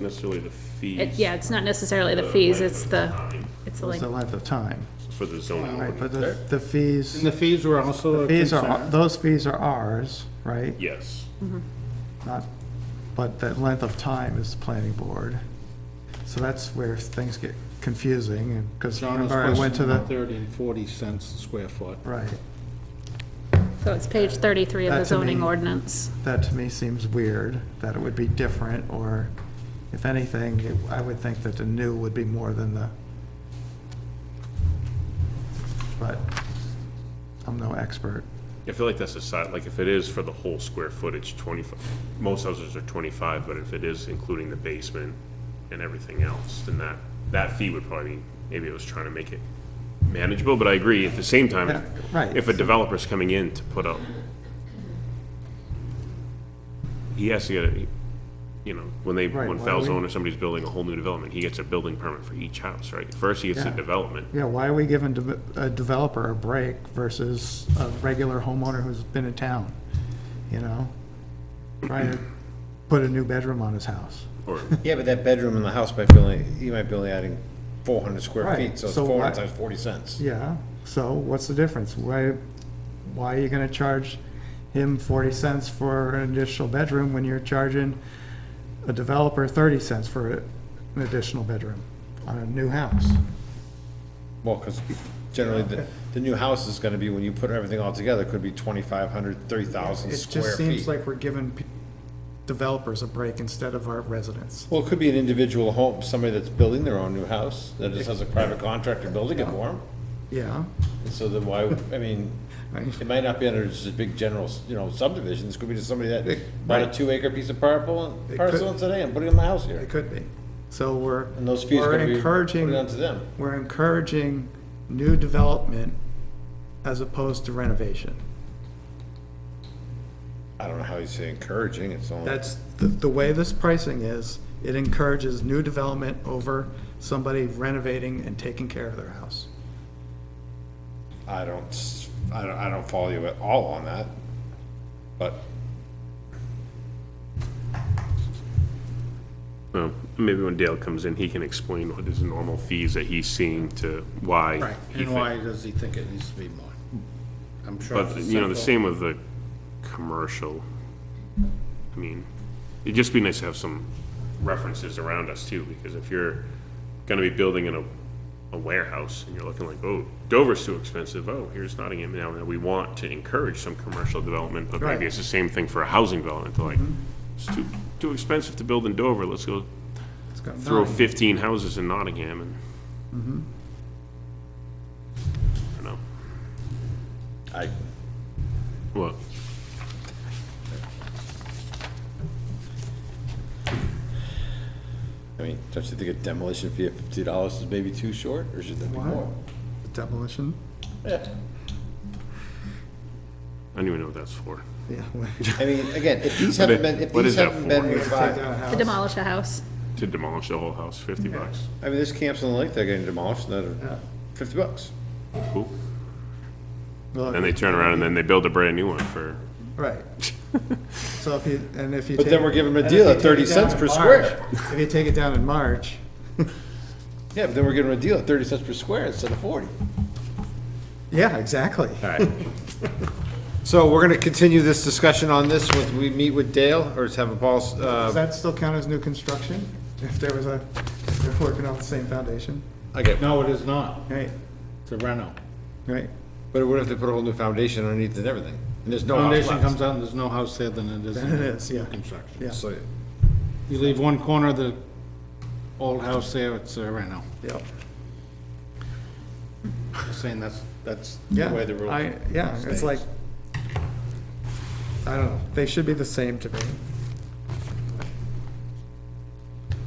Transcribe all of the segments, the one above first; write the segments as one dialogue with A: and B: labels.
A: necessarily the fees.
B: It, yeah, it's not necessarily the fees, it's the, it's the
C: It's the
B: length.
C: length of time,
A: For the zoning
C: right, but
A: ordinance,
C: the, the fees,
D: And the fees were also a
C: fees are,
D: concern.
C: those fees are ours, right?
A: yes.
C: Not, but that length of time is the planning board. So that's where things get confusing, and, because
D: Donna's
C: remember I went to
D: question about
C: the,
D: thirty and forty cents a square foot.
C: right,
B: So it's page thirty-three of
C: That
B: the
C: to
B: zoning
C: me-
B: ordinance.
C: that to me seems weird, that it would be different, or if anything, it- I would think that the new would be more than the, but I'm no expert.
A: I feel like that's a side, like if it is for the whole square footage, twenty-five, most houses are twenty-five, but if it is including the basement and everything else, then that, that fee would probably, be maybe it was trying to make it manageable, but I agree, at the same
C: Yeah,
A: time,
C: right.
A: if a developer's coming in to put up, he has to get, a you know, when they,
C: Right,
A: when
C: why
A: Falzone
C: we-
A: or somebody's building a whole new development, he gets a building permit for each house, right? First, he gets the
C: Yeah.
A: development,
C: Yeah, why are we giving de- a developer a break versus a regular homeowner who's been in town, you know? Trying to put a new bedroom on his house.
A: or
E: Yeah, but that bedroom in the house might be only, you might be only adding four hundred square
C: Right,
E: feet, so it's
C: so
E: four
C: why-
E: hundred times forty cents.
C: Yeah, so what's the difference? Why, why are you gonna charge him forty cents for an additional bedroom when you're charging a developer thirty cents for a- an additional bedroom on a new house?
E: Well, because generally, the, the new house is gonna be, when you put everything all together, could be twenty-five hundred, three thousand
C: It
E: square
C: just
E: feet.
C: seems like we're giving p- developers a break instead of our residents.
E: Well, it could be an individual home, somebody that's building their own new house, that just has a private contractor building it for them.
C: Yeah,
E: And so then why, I mean, it might not be under just a big general, you know, subdivision, this could be just somebody that bought a
C: right.
E: two acre piece of parcel,
C: It
E: parcel
C: could-
E: and said, hey, I'm putting in my house here.
C: it could be. So we're,
E: And those fees
C: we're
E: could be
C: encouraging.
E: put onto them.
C: we're encouraging new development as opposed to renovation.
E: I don't know how you say encouraging, it's only.
C: That's, the, the way this pricing is, it encourages new development over somebody renovating and taking care of their house.
E: I don't, s- I don't, I don't follow you at all on that, but
A: Well, maybe when Dale comes in, he can explain what his normal fees that he's seeing to why.
D: Right,
A: he
D: and
A: thi-
D: why does he think it needs to be more? I'm sure.
A: But,
D: it's
A: you know, the
D: simple.
A: same with the commercial. I mean, it'd just be nice to have some references around us too, because if you're gonna be building in a, a warehouse and you're looking like, oh, Dover's too expensive, oh, here's Nottingham now, and we want to encourage some commercial development, but
C: Right.
A: maybe it's the same thing for a housing development, like,
D: Mm-hmm.
A: it's too, too expensive to build in Dover, let's go
C: It's got-
A: throw 15 houses in Nottingham and. I don't know.
E: I,
A: What?
E: I mean, don't you think a demolition fee of fifty dollars is maybe too short, or should that be
C: Why?
E: more?
C: Demolition?
A: I don't even know what that's for.
C: Yeah.
E: I mean, again, if these
A: What
E: haven't
A: i-
E: been, if
A: what is
E: these
A: that
E: haven't been
A: for?
E: revived,
B: To demolish a house.
A: To demolish the whole house, 50 bucks.
E: I mean, there's camps on the lake that are getting demolished, that are fifty bucks.
A: Cool. Then they turn around and then they build a brand new one for,
C: Right. So if you, and if you.
E: But
C: take-
E: then we're giving them
C: and
E: a
C: if
E: deal
C: you
E: at
C: take
E: 30
C: it down
E: cents
C: in
E: per
C: March-
E: square.
C: If you take it down in March,
E: Yeah, but then we're giving them a deal at thirty cents per square instead of forty.
C: yeah, exactly.
E: So we're gonna continue this discussion on this with, we meet with Dale, or have a Paul,
C: Does
E: uh,
C: that still count as new construction? If there was a, if they're working off the same foundation?
E: okay,
D: No, it is not.
C: Right,
D: It's a reno.
C: right.
E: but what if they put a whole new foundation underneath and everything? And there's no house
D: Foundation
E: left.
D: comes out and there's no house there than it is
C: Then it
D: in
C: is, yeah,
D: construction.
C: yeah,
E: So,
D: You leave one corner of the old house there, it's uh, a reno.
C: yeah.
D: Just saying that's, that's the
C: Yeah,
D: way the rules.
C: I, yeah, it's
D: stays.
C: like, I don't know, they should be the same to me.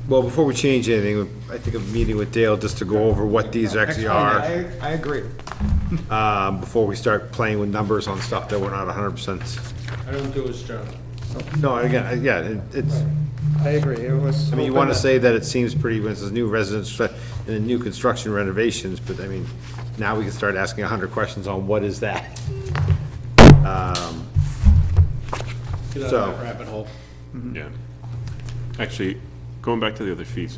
E: Well, before we change anything, I think a meeting with Dale just to go over what these actually are,
C: I, I agree.
E: um, before we start playing with numbers on stuff that we're not hundred percent.
D: I don't do his job.
E: No, again, I- yeah, it- it's,
C: I agree, it was.
E: I mean, you
C: open
E: wanna
C: that-
E: say that it seems pretty, when it says new residents and then new construction renovations, but I mean, now we can start asking hundred questions on what is that? Um,
D: Get out
E: So-
D: of that rabbit hole.
A: yeah. Actually, going back to the other fees,